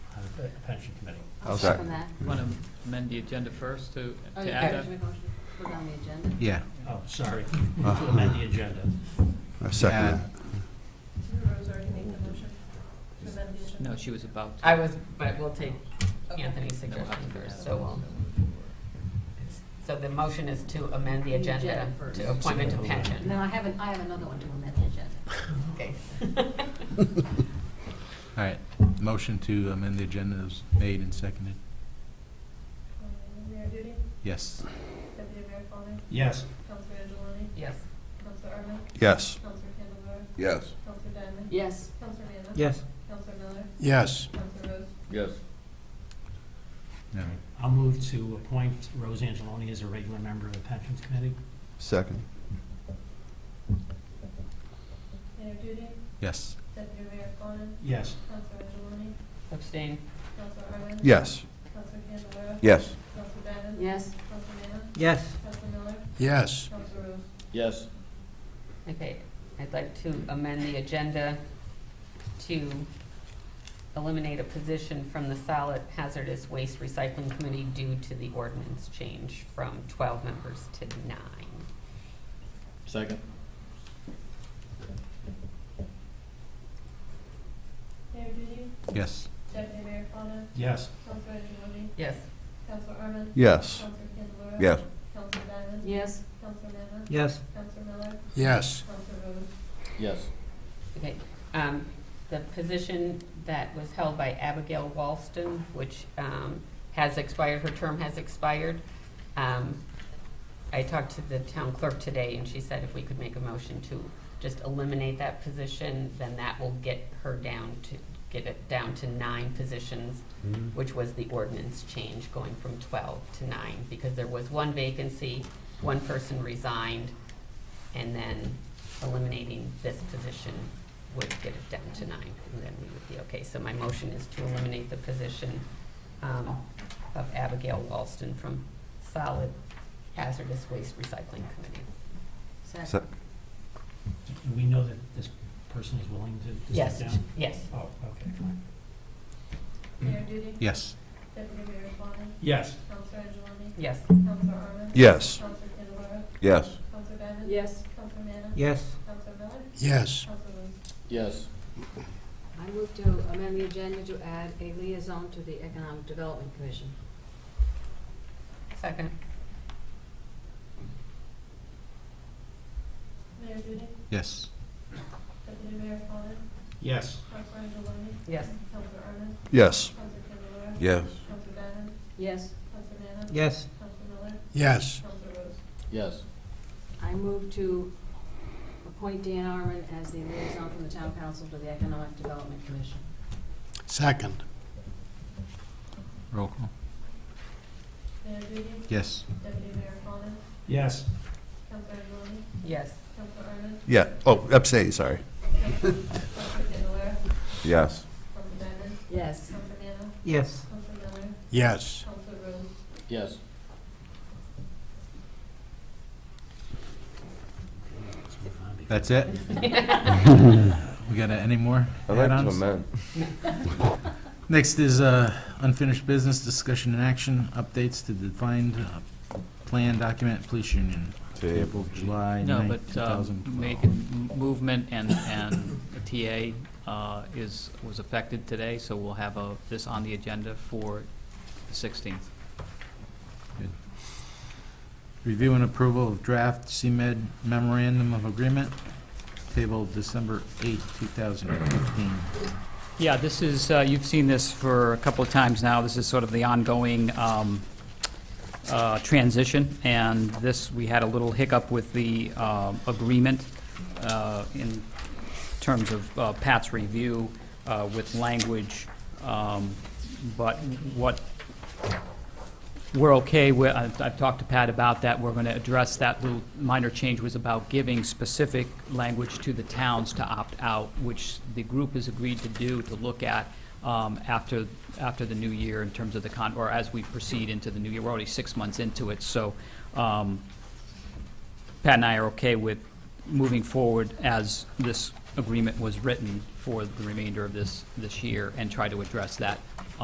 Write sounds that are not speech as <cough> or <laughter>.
uh, pension committee. I'll second. second that. Want to amend the agenda first to, Oh, to you add have that? to make a motion to put it on the agenda? Yeah, Oh, sorry, to amend the agenda. I second add, that. Rose already made the motion to amend the agenda. No, she was about to. I was, but we'll take Anthony's suggestion first, so we'll. So the motion is to amend the agenda Agenda first. to appointment to pension. No, I have, an- I have another one to amend the agenda. Okay. <laughs> all right, motion to amend the agenda is made and seconded, Um, Mayor Duty, yes. Deputy Mayor Fawnin, Yes, Councilor Angeloni, Yes. Councilor Arman, Yes. Councilor Candelara, Yes. Councilor Diamond, Yes, Councilor Nana, Yes. Councilor Miller, Yes. Councilor Rose. Yes. No. I'll move to appoint Rose Angeloni as a regular member of the pensions committee. Second. Mayor Duty, Yes, Deputy Mayor Fawnin, Yes, Councilor Angeloni, Abstain. Councilor Arman. Yes. Councilor Candelara, Yes. Councilor Diamond, yes, Councilor Nana, Yes. Councilor Miller, Yes. Councilor Rose. Yes. Okay, I'd like to amend the agenda to eliminate a position from the solid hazardous waste recycling committee due to the ordinance change from twelve members to nine. Second. Mayor Duty, yes, Deputy Mayor Fawnin, yes, Councilor Angeloni, Yes. Councilor Arman, Yes. Councilor Candelara, Yes. Councilor Diamond, yes, Councilor Nana, Yes. Councilor Miller, Yes. Councilor Rose. Yes. Okay, um, the position that was held by Abigail Walston, which, um, has expired, her term has expired. Um, I talked to the town clerk today and she said if we could make a motion to just eliminate that position, then that will get her down to, get it down to nine positions, which was the ordinance change going from twelve to nine, because there was one vacancy, one person resigned, and then eliminating this position would get it down to nine, and then we would be okay. So my motion is to eliminate the position um, of Abigail Walston from Solid Hazardous Waste Recycling Committee. second, do we know that this person is willing to to Yes, step down? yes, Oh, okay, fine. Mayor Duty, yes, Deputy Mayor Fawnin, Yes, Councilor Angeloni, yes, Councilor Arman, Yes. Councilor Candelara, Yes. Councilor Diamond, yes. Councilor Nana, Yes. Councilor Miller, Yes. Councilor Rose. Yes. I move to amend the agenda to add a liaison to the Economic Development Commission. second, Mayor Duty, yes, Deputy Mayor Fawnin, yes, Councilor Angeloni, yes, Councilor Arman, Yes. Councilor Candelara, Yes. Councilor Diamond, Yes, Councilor Nana, Yes. Councilor Miller, Yes. Councilor Rose. Yes. I move to appoint Dan Arman as the liaison from the town council to the Economic Development Commission. Second. roll call, Mayor Duty, yes, Deputy Mayor Fawnin, yes, Councilor Angeloni, yes, Councilor Arman, Yeah, oh, abstain, sorry. Councilor Candelara, Yes. Councilor Diamond, Yes, Councilor Nana, Yes. Councilor Miller, Yes. Councilor Rose. Yes. Let's move on before- that's it? We got any more add-ons? Next is uh, unfinished business, discussion and action, updates to defined uh, plan document, police union, April, July No, 9th, but uh, 2012. Megan, m- movement and, and the TA uh, is, was affected today, so we'll have a, this on the agenda for the 16th. Review and approval of draft CMed memorandum of agreement, tabled December 8, 2015. Yeah, this is, uh, you've seen this for a couple of times now. This is sort of the ongoing um, uh, transition, and this, we had a little hiccup with the um, agreement uh, in terms of uh, Pat's review uh, with language, um, but what we're okay, with- I've I've talked to Pat about that, we're going to address that little minor change was about giving specific language to the towns to opt out, which the group has agreed to do, to look at um, after, after the new year in terms of the con, or as we proceed into the new year, we're already six months into it, so um, Pat and I are okay with moving forward as this agreement was written for the remainder of this, this year and try to address that